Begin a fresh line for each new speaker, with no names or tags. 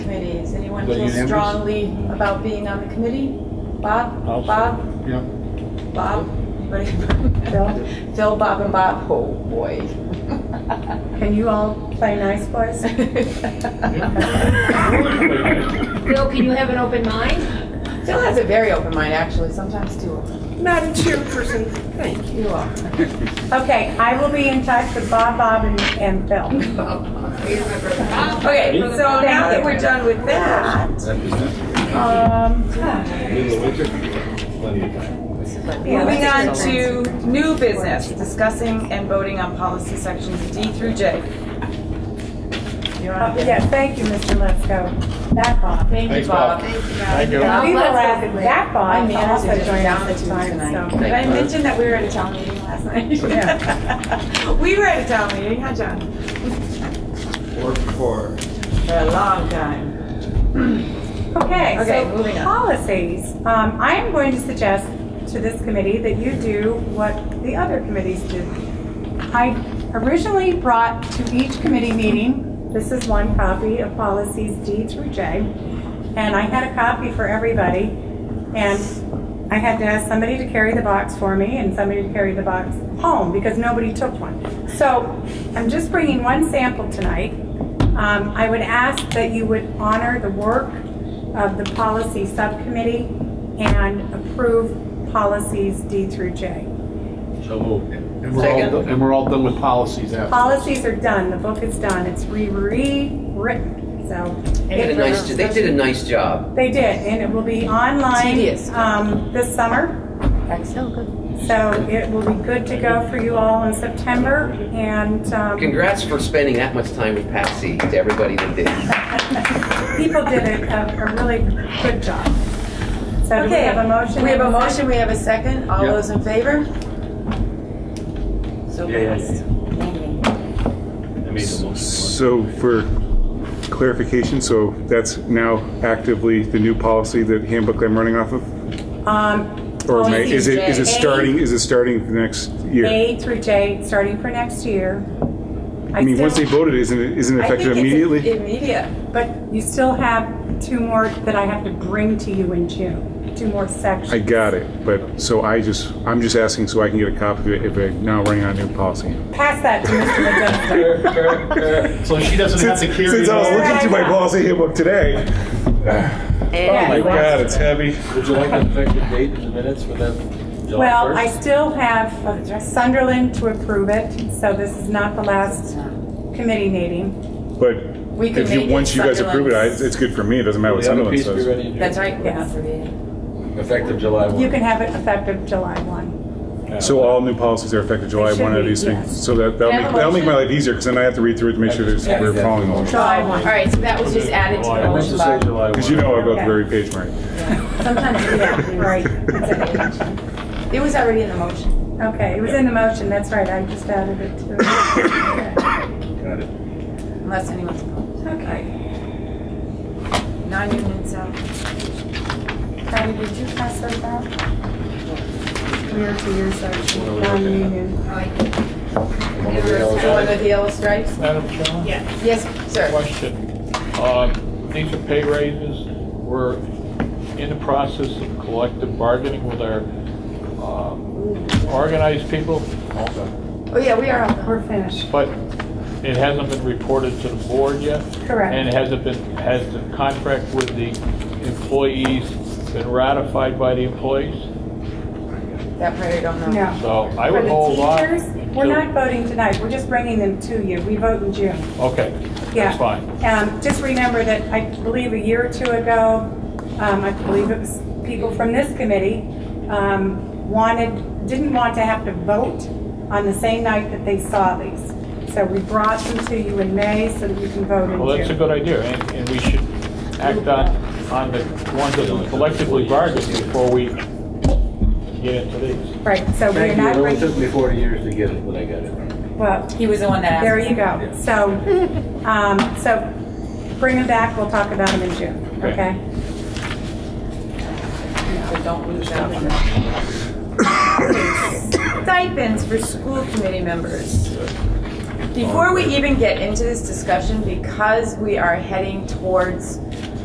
anyone
But you-
feels strongly about being on the committee? Bob?
I'll-
Bob?
Yeah.
Bob? Anybody? Phil, Bob, and Bob? Oh, boy.
Can you all play nice for us?
Bill, can you have an open mind?
Phil has a very open mind, actually, sometimes too open.
Madam Chairperson, thank you.
You are.
Okay, I will be in touch with Bob, Bob, and- and Phil.
Okay, so now that we're done with that,
Um,
moving on to new business, discussing and voting on policy sections D through J. You're on
uh,
again.
Yeah, thank you, Mr. Lesko. That Bob.
Thank you,
Thanks,
Bob.
Bob.
Thank you.
We were laughing, that
My
Bob
manners
also
are just
joined
down
us
the
this
tube
time,
tonight.
so.
Did I mention that we were at a town meeting last night? We were at a town meeting, huh, John? For a long time.
Okay,
Okay, moving
so
on.
policies. Um, I am going to suggest to this committee that you do what the other committees do. I originally brought to each committee meeting, this is one copy of policies D through J, and I had a copy for everybody, and I had to ask somebody to carry the box for me and somebody to carry the box home because nobody took one. So I'm just bringing one sample tonight. Um, I would ask that you would honor the work of the policy subcommittee and approve policies D through J.
So moved. And we're all, and we're all done with policies after.
Policies are done, the book is done, it's re- rewritten, so.
They did a nice, they did a nice job.
They did, and it will be online
Tedious.
um, this summer. So it will be good to go for you all in September, and um,
Congrats for spending that much time with Patsy, to everybody that did.
people did a a really good job. So do we
Okay,
have a motion?
We have a motion, we have a second. All
Yeah.
those in favor? So passed.
So for clarification, so that's now actively the new policy that handbook I'm running off of?
Um,
Or may-
policies
is it, is it
J.
starting, is it starting for the next year?
A through J, starting for next year.
I mean, once they voted, isn't it, isn't it
I think
effective
it's
immediately?
Immediate.
But you still have two more that I have to bring to you in June, two more
I
sections.
got it, but, so I just, I'm just asking so I can get a copy of it if I'm now running on a new policy.
Pass that to Mr. Modesto.
So she doesn't have to carry.
Since I was
it all.
looking through my policy handbook today, oh my God, it's heavy.
Would you like an effective date in the minutes for that? July
Well,
1st?
I still have uh, Sunderland to approve it, so this is not the last committee meeting.
But
We can
if you,
make it
once you guys approve it, I-
Sunderland's-
it's good for me, it doesn't matter what
The other
Sunderland
piece be
says.
ready in June.
That's right.
Yes.
Effective July
You
1.
can have it effective July 1.
So all new policies are effective July
They should
1 of
be,
these
yes.
things. So that, that'll
Can I
make,
have a
that'll make my
motion?
life easier because then I have to read through it to make sure that we're following along.
July 1.
All right, so that was just added to the
I meant
motion
to say
box.
July 1.
Because you know I go
Okay.
to every page, Marty.
Sometimes, yeah.
Right. It's a-
It was already in the motion.
Okay, it was in the motion, that's right, I just added it to it.
Unless anyone's opposed.
Okay.
Non-union salary.
Patty, did you pass those out? Where to your section, non-union.
One of the yellows.
One with the yellow stripes?
Madam Chairman? Yes.
Yes, sir.
Question. Um, These are pay raises. We're in the process of collective bargaining with our um, organized people,
Oh, yeah, we are. all done.
We're finished.
but it hasn't been reported to the board yet.
Correct.
And has it been, has the contract with the employees been ratified by the employees?
That part I don't know.
No.
So I
For
would
the
hold off.
teachers, We're
until-
not voting tonight, we're just bringing them to you, we vote in June.
Okay,
Yeah.
that's fine.
Um, just remember that I believe a year or two ago, um, I believe it was people from this committee, um, wanted, didn't want to have to vote on the same night that they saw these. So we brought them to you in May so that you can vote in June.
Well, that's a good idea, and, and we should act on, on the ones that we collectively bargained before we get into these.
Right, so we're
Thank you,
not
it only took
bringing,
me 40 years to get it, but I got it.
well,
He was the one that asked.
there you go. So, um, so bring them back, we'll talk about them in June,
Okay.
okay?
So don't lose that. Stipends for school committee members. Before we even get into this discussion, because we are heading towards